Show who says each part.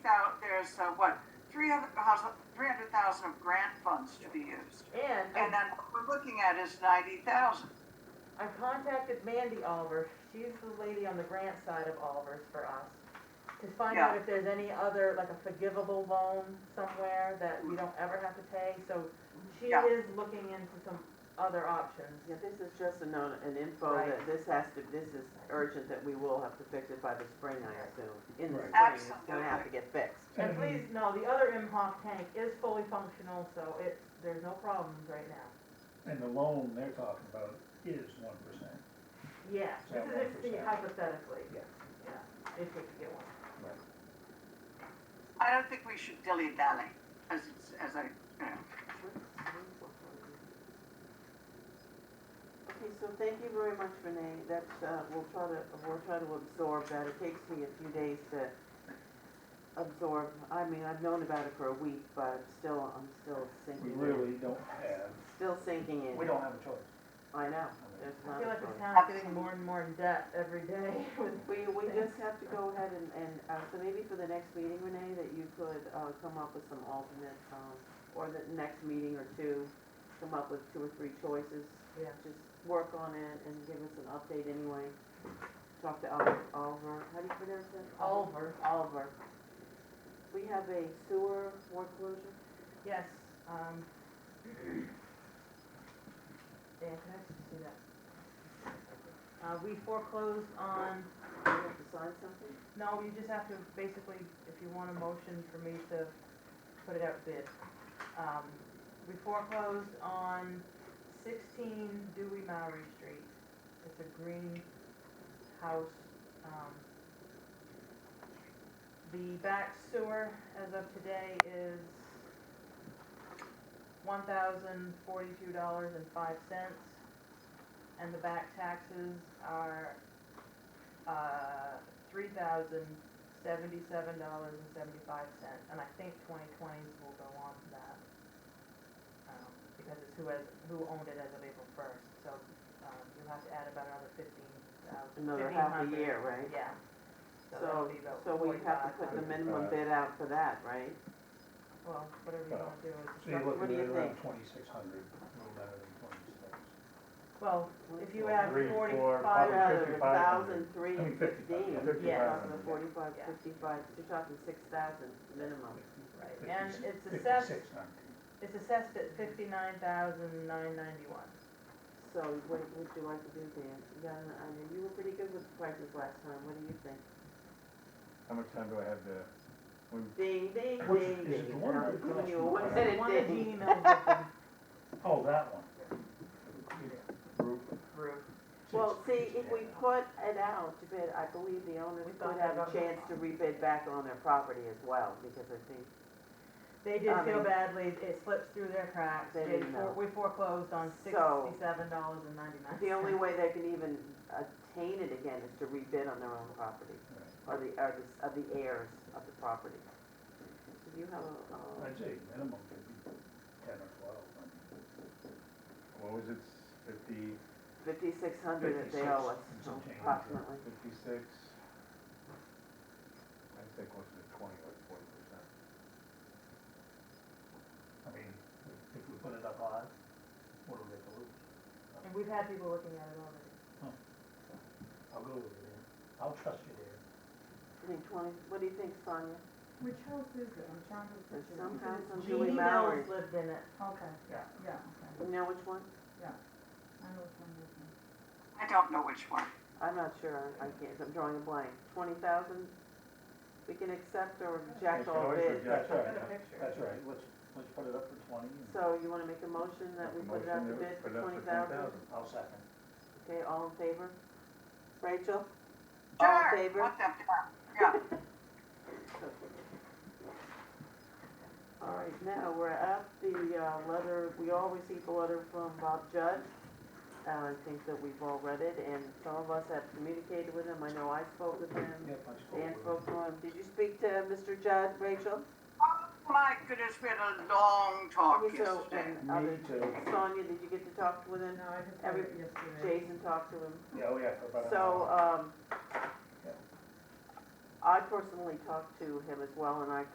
Speaker 1: there's, uh, what, three hundred thousand of grant funds to be used.
Speaker 2: And
Speaker 1: And
Speaker 2: I-
Speaker 1: then what we're looking at is ninety thousand.
Speaker 2: I contacted Mandy Oliver, she's the lady on the grant side of Oliver's for us, to find out if there's any other, like a forgivable loan somewhere that we don't ever have to pay, so she
Speaker 1: Yeah.
Speaker 2: is looking into some other options.
Speaker 3: Yeah, this is just a known, an info
Speaker 2: Right.
Speaker 3: that this has to, this is urgent that we will have to fix it by the spring, I assume. In the
Speaker 4: Right.
Speaker 3: spring, it's gonna have to
Speaker 1: Absolutely.
Speaker 3: get fixed.
Speaker 2: And
Speaker 4: Mm-hmm.
Speaker 2: please, no, the other Imhoff tank is fully functional, so it's, there's no problems right now.
Speaker 4: And the loan they're talking about is one percent.
Speaker 2: Yeah,
Speaker 4: So
Speaker 2: this is
Speaker 4: one
Speaker 2: just
Speaker 4: percent.
Speaker 2: hypothetically,
Speaker 4: Yeah.
Speaker 2: yeah, if we could get one.
Speaker 1: I don't think we should dilly-dally, as it's, as I, you know.
Speaker 3: Okay, so thank you very much, Renee. That's, uh, we'll try to, we'll try to absorb that. It takes me a few days to absorb. I mean, I've known about it for a week, but I'm still, I'm still
Speaker 4: We
Speaker 3: sinking in.
Speaker 4: really don't have,
Speaker 3: Still sinking in.
Speaker 4: we don't have a choice.
Speaker 3: I know, there's
Speaker 2: I
Speaker 3: not
Speaker 2: feel
Speaker 3: a
Speaker 2: like
Speaker 3: choice.
Speaker 2: the town's getting more and more in debt every day with
Speaker 3: We, we just have to go ahead and, and, uh, so maybe for the next meeting, Renee, that you could, uh, come up with some alternate, um, or the next meeting or two, come up with two or three choices.
Speaker 2: Yeah.
Speaker 3: Just work on it and give us an update anyway. Talk to Oliver, Oliver, how do you pronounce it?
Speaker 2: Oliver.
Speaker 3: Oliver. We have a sewer water closure?
Speaker 2: Yes, um. Yeah, can I just see that? Uh, we foreclosed on,
Speaker 3: Do we have to sign something?
Speaker 2: no, you just have to basically, if you want a motion for me to put it out bid. Um, we foreclosed on sixteen Dewey Maury Street. It's a green house, um. The back sewer as of today is one thousand forty-two dollars and five cents. And the back taxes are, uh, three thousand seventy-seven dollars and seventy-five cents. And I think twenty twenties will go on to that. Um, because it's who has, who owned it as of April first, so, um, you'll have to add about another fifteen thousand,
Speaker 3: Another
Speaker 2: fifteen
Speaker 3: half a
Speaker 2: hundred.
Speaker 3: year, right?
Speaker 2: Yeah. So that'll
Speaker 3: So,
Speaker 2: be about
Speaker 3: so we have to put the
Speaker 2: $4,500.
Speaker 3: minimum bid out for that, right?
Speaker 2: Well, whatever you wanna do is.
Speaker 4: So you're
Speaker 3: What do
Speaker 4: looking
Speaker 3: you
Speaker 4: at around
Speaker 3: think?
Speaker 4: twenty-six hundred, a little better than twenty-six.
Speaker 2: Well, if you
Speaker 5: Well,
Speaker 2: add
Speaker 5: three, four,
Speaker 2: forty-five,
Speaker 3: Five
Speaker 5: five.
Speaker 3: hundred, a thousand, three
Speaker 4: I mean,
Speaker 3: fifteen.
Speaker 4: 55,
Speaker 2: Yeah.
Speaker 4: 55.
Speaker 3: Forty-five,
Speaker 2: Yeah.
Speaker 3: fifty-five, you're talking six thousand minimum.
Speaker 2: Right, and
Speaker 4: Fifty-
Speaker 2: it's assessed,
Speaker 4: Fifty-six nineteen.
Speaker 2: it's assessed at fifty-nine thousand nine ninety-one.
Speaker 3: So what would you like to do, Dan? You got an idea, you were pretty good with the prices last time, what do you think?
Speaker 5: How much time do I have to, we,
Speaker 3: Ding, ding,
Speaker 4: Which
Speaker 3: ding,
Speaker 4: is
Speaker 3: ding.
Speaker 4: one
Speaker 3: I'm
Speaker 4: good
Speaker 3: giving you a one-minute
Speaker 4: question.
Speaker 2: One of the
Speaker 3: ding.
Speaker 2: emails that the
Speaker 4: Oh, that one.
Speaker 5: group,
Speaker 2: group,
Speaker 3: Well,
Speaker 4: Six-
Speaker 3: see, if we put it out to bid, I believe the owners
Speaker 2: We thought
Speaker 3: would have
Speaker 2: that
Speaker 3: a
Speaker 2: on the-
Speaker 3: chance to rebid back on their property as well, because I think
Speaker 2: they did
Speaker 3: I
Speaker 2: feel
Speaker 3: mean-
Speaker 2: badly, it slipped through their cracks,
Speaker 3: Um, They
Speaker 2: they,
Speaker 3: didn't
Speaker 2: for-
Speaker 3: know.
Speaker 2: we foreclosed on
Speaker 3: So-
Speaker 2: sixty-seven dollars and ninety-nine.
Speaker 3: the only way they can even attain it again is to rebid on their own property. Or
Speaker 4: Right.
Speaker 3: the, or the, of the heirs of the property. Do you have a, uh,
Speaker 4: I'd say minimum could be ten or twelve, I mean.
Speaker 5: what was it, fifty,
Speaker 3: fifty-six hundred that they owe us
Speaker 4: 56 and some change, yeah.
Speaker 3: approximately?
Speaker 5: fifty-six? I'd say closer to twenty or forty percent.
Speaker 4: I mean, if we put it up high, what do we have to lose?
Speaker 2: And we've had people looking at it already.
Speaker 4: I'll go with you there. I'll trust you there.
Speaker 3: I think twenty, what do you think, Sonia?
Speaker 6: Which house is it? I'm trying to
Speaker 3: There's
Speaker 6: picture.
Speaker 3: some
Speaker 6: Is it-
Speaker 3: house on Dewey
Speaker 2: Jeannie
Speaker 3: Mallory.
Speaker 2: Mills lived in it,
Speaker 6: Okay,
Speaker 4: Yeah.
Speaker 6: yeah, okay.
Speaker 3: You know which one?
Speaker 6: I know which one this is.
Speaker 1: I don't know which one.
Speaker 3: I'm not sure, I I can't, I'm drawing a blank. Twenty thousand? We can accept or reject
Speaker 5: You can
Speaker 3: all
Speaker 5: always
Speaker 3: bids.
Speaker 5: reject
Speaker 4: That's
Speaker 5: it.
Speaker 4: right.
Speaker 2: got a picture.
Speaker 4: That's right, let's, let's put it up for twenty and
Speaker 3: So you wanna make a motion that we put
Speaker 5: Make a
Speaker 3: it out to
Speaker 5: motion to
Speaker 3: bid for
Speaker 5: put it out
Speaker 3: twenty
Speaker 5: for
Speaker 3: thousand?
Speaker 5: 10,000.
Speaker 4: I'll second.
Speaker 3: Okay, all in favor? Rachel? All in
Speaker 1: Sure,
Speaker 3: favor?
Speaker 1: let them come. Yeah,
Speaker 3: All right, now, we're at the uh, letter, we all received a letter from Bob Judd. Uh, I think that we've all read it, and some of us have communicated with him. I know I spoke with him,
Speaker 4: Yep, I spoke
Speaker 3: Dan
Speaker 4: with
Speaker 3: spoke to him. Did you speak to Mr. Judd, Rachel?
Speaker 1: oh my goodness, we had a long talk
Speaker 3: Okay, so,
Speaker 1: yesterday.
Speaker 3: and other-
Speaker 4: Me too.
Speaker 3: Sonia, did you get to talk with him?
Speaker 6: No, I just read
Speaker 3: Every-
Speaker 6: it yesterday.
Speaker 3: Jason talked to him?
Speaker 4: Yeah, oh yeah, for about an
Speaker 3: So,
Speaker 4: hour.
Speaker 3: um,
Speaker 4: Yeah.
Speaker 3: I personally talked to him as well, and I